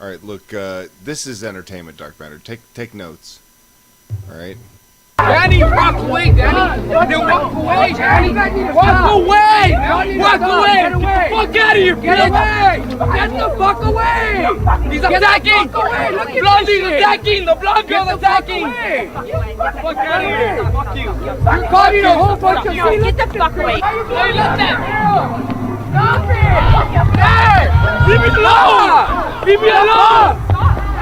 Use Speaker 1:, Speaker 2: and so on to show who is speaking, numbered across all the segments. Speaker 1: All right, look, uh, this is entertainment, Dark Matter. Take take notes. All right.
Speaker 2: Danny, walk away, Danny. Now walk away, Danny. Walk away. Walk away. Get the fuck out of here, bitch. Get the fuck away. He's attacking. Blondie's attacking. The blonde girl attacking. Get the fuck out of here. Fuck you. You're causing a whole bunch of
Speaker 3: Get the fuck away.
Speaker 2: Hey, let that. Stop it. Hey, leave me alone. Leave me alone.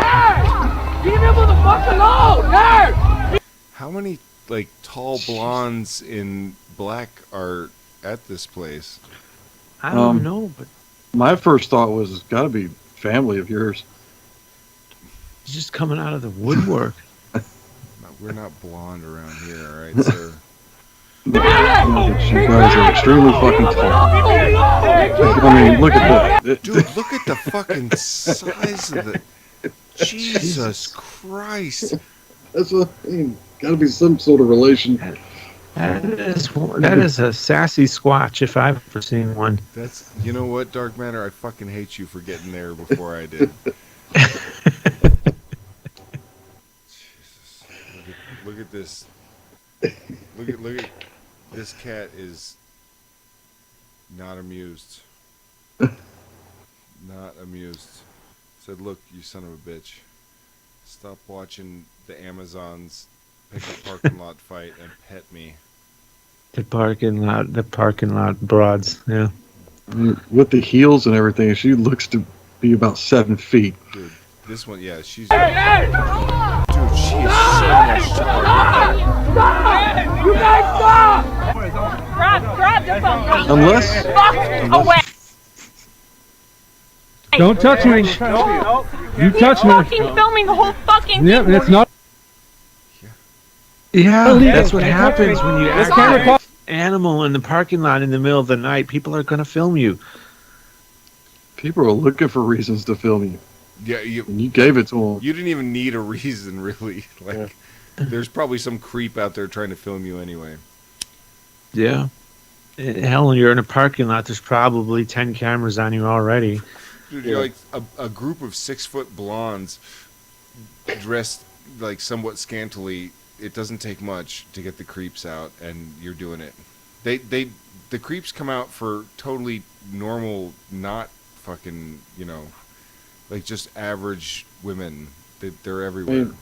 Speaker 2: Hey, leave me motherfucker alone. Hey.
Speaker 1: How many like tall blondes in black are at this place?
Speaker 4: I don't
Speaker 5: Um,
Speaker 4: know, but
Speaker 5: My first thought was it's got to be family of yours.
Speaker 4: it's just coming out of the woodwork.
Speaker 1: No, We're not blonde around here, all right, sir.
Speaker 5: You guys are extremely fucking tall. I mean, look at that.
Speaker 1: Dude, look at the fucking size of the. Jesus Christ!
Speaker 5: That's what I mean. Got to be some sort of relation.
Speaker 4: That is one- that is a sassy squatch if I've ever seen one.
Speaker 1: That's you know what, Dark Matter. I fucking hate you for getting there before I did. Jesus, look at, look at this. Look at look at this cat is not amused. Not amused. Said, look, you son of a bitch. Stop watching the Amazons pick a parking lot fight and pet me.
Speaker 4: The parking lot, the parking lot broads. Yeah,
Speaker 5: With the heels and everything, she looks to be about seven feet.
Speaker 1: Dude, this one, yeah, she's. Dude, she is so much
Speaker 2: You guys stop!
Speaker 3: Grab, grab the phone.
Speaker 5: Unless,
Speaker 3: Fuck away.
Speaker 6: Don't touch me. You touch
Speaker 3: He's
Speaker 6: me.
Speaker 3: fucking filming the whole fucking
Speaker 6: Yeah,
Speaker 3: thing.
Speaker 6: it's not.
Speaker 4: yeah,
Speaker 6: Illegal.
Speaker 4: that's what happens when you
Speaker 6: It's
Speaker 4: act
Speaker 6: camera
Speaker 4: like
Speaker 6: call-
Speaker 4: an animal in the parking lot in the middle of the night. People are going to film you.
Speaker 5: people are looking for reasons to film you,
Speaker 1: Yeah, you
Speaker 5: and you gave it to them.
Speaker 1: you didn't even need a reason, really. Like, there's probably some creep out there trying to film you anyway.
Speaker 4: Yeah. Eh, Hell, you're in a parking lot. There's probably ten cameras on you already.
Speaker 1: Dude, you're like a, a group of six foot blondes dressed like somewhat scantily. It doesn't take much to get the creeps out, and you're doing it. They they the creeps come out for totally normal, not fucking you know, like just average women. They, they're everywhere.
Speaker 5: I mean,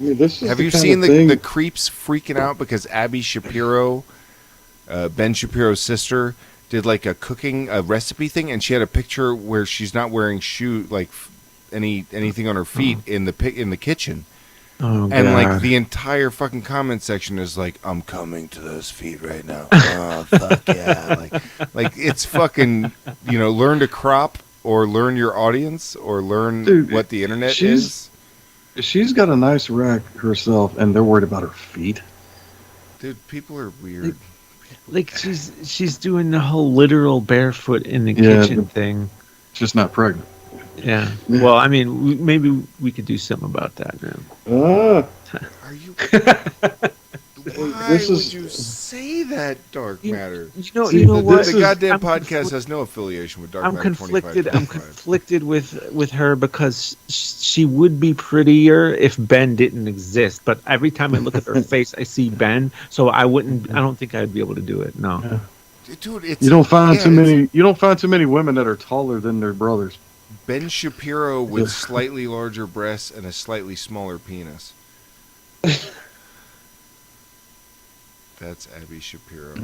Speaker 5: I mean, this is
Speaker 1: Have
Speaker 5: the
Speaker 1: you
Speaker 5: kind
Speaker 1: seen
Speaker 5: of
Speaker 1: the,
Speaker 5: thing-
Speaker 1: the creeps freaking out because Abby Shapiro, uh, Ben Shapiro's sister, did like a cooking a recipe thing, and she had a picture where she's not wearing shoe like f- any anything on her feet
Speaker 5: Uh-huh.
Speaker 1: in the pic in the kitchen,
Speaker 4: Oh
Speaker 1: and
Speaker 4: god!
Speaker 1: like the entire fucking comment section is like, "I'm coming to those feet right now." Oh fuck yeah! Like, like it's fucking you know, learn to crop or learn your audience or learn
Speaker 5: Dude,
Speaker 1: what the internet
Speaker 5: she's-
Speaker 1: is.
Speaker 5: She's got a nice rack herself, and they're worried about her feet.
Speaker 1: Dude, people are weird.
Speaker 4: like she's she's doing the whole literal barefoot in the
Speaker 5: Yeah.
Speaker 4: kitchen thing.
Speaker 5: Just not pregnant.
Speaker 4: Yeah. Well, I mean, w- maybe we could do something about that now.
Speaker 5: Ah,
Speaker 1: Are you? Why
Speaker 5: This
Speaker 1: would
Speaker 5: is-
Speaker 1: you say that, Dark Matter?
Speaker 4: You know,
Speaker 5: See,
Speaker 4: you know
Speaker 5: th-
Speaker 4: what?
Speaker 5: this
Speaker 1: the
Speaker 5: is-
Speaker 1: goddamn
Speaker 4: I'm
Speaker 1: podcast
Speaker 4: conflict-
Speaker 1: has no affiliation with Dark
Speaker 4: I'm
Speaker 1: Matter.
Speaker 4: conflicted.
Speaker 1: 25,
Speaker 4: I'm
Speaker 1: 25.
Speaker 4: conflicted with with her because sh- she would be prettier if Ben didn't exist. But every time I look at her face, I see Ben, so I wouldn't. I don't think I'd be able to do it. No.
Speaker 1: Dude, it's,
Speaker 5: you don't find
Speaker 1: yeah,
Speaker 5: too
Speaker 1: it's-
Speaker 5: many. You don't find too many women that are taller than their brothers.
Speaker 1: Ben Shapiro with slightly larger breasts and a slightly smaller penis. That's Abby Shapiro.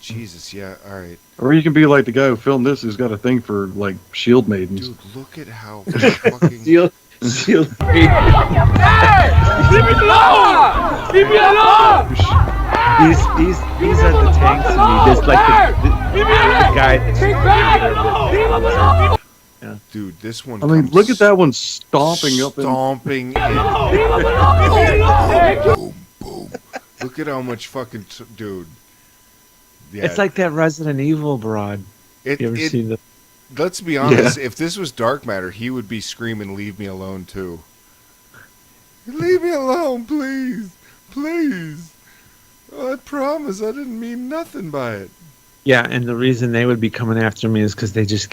Speaker 1: Jesus, yeah, all right,
Speaker 5: Or you can be like the guy who filmed this, who's got a thing for like shield maidens.
Speaker 1: dude. Look at how fucking
Speaker 2: Leave me alone! Leave me alone!
Speaker 4: These these these are the tanks to me. There's like the, the,
Speaker 2: Leave me alone!
Speaker 4: the guy that's
Speaker 2: Leave me alone! Leave him alone!
Speaker 1: dude. This one.
Speaker 5: I mean,
Speaker 1: comes
Speaker 5: look at that one stomping up. In,
Speaker 1: stomping in.
Speaker 2: Leave him alone! Leave me alone!
Speaker 1: boom, boom. Look at how much fucking t- dude. Yeah,
Speaker 4: It's like that Resident Evil broad.
Speaker 1: it,
Speaker 4: You ever
Speaker 1: it-
Speaker 4: seen the?
Speaker 1: Let's be honest. If this was Dark Matter, he would be screaming, "Leave me alone, too! Leave me alone, please, please! I promise, I didn't mean nothing by it."
Speaker 4: Yeah, and the reason they would be coming after me is because they just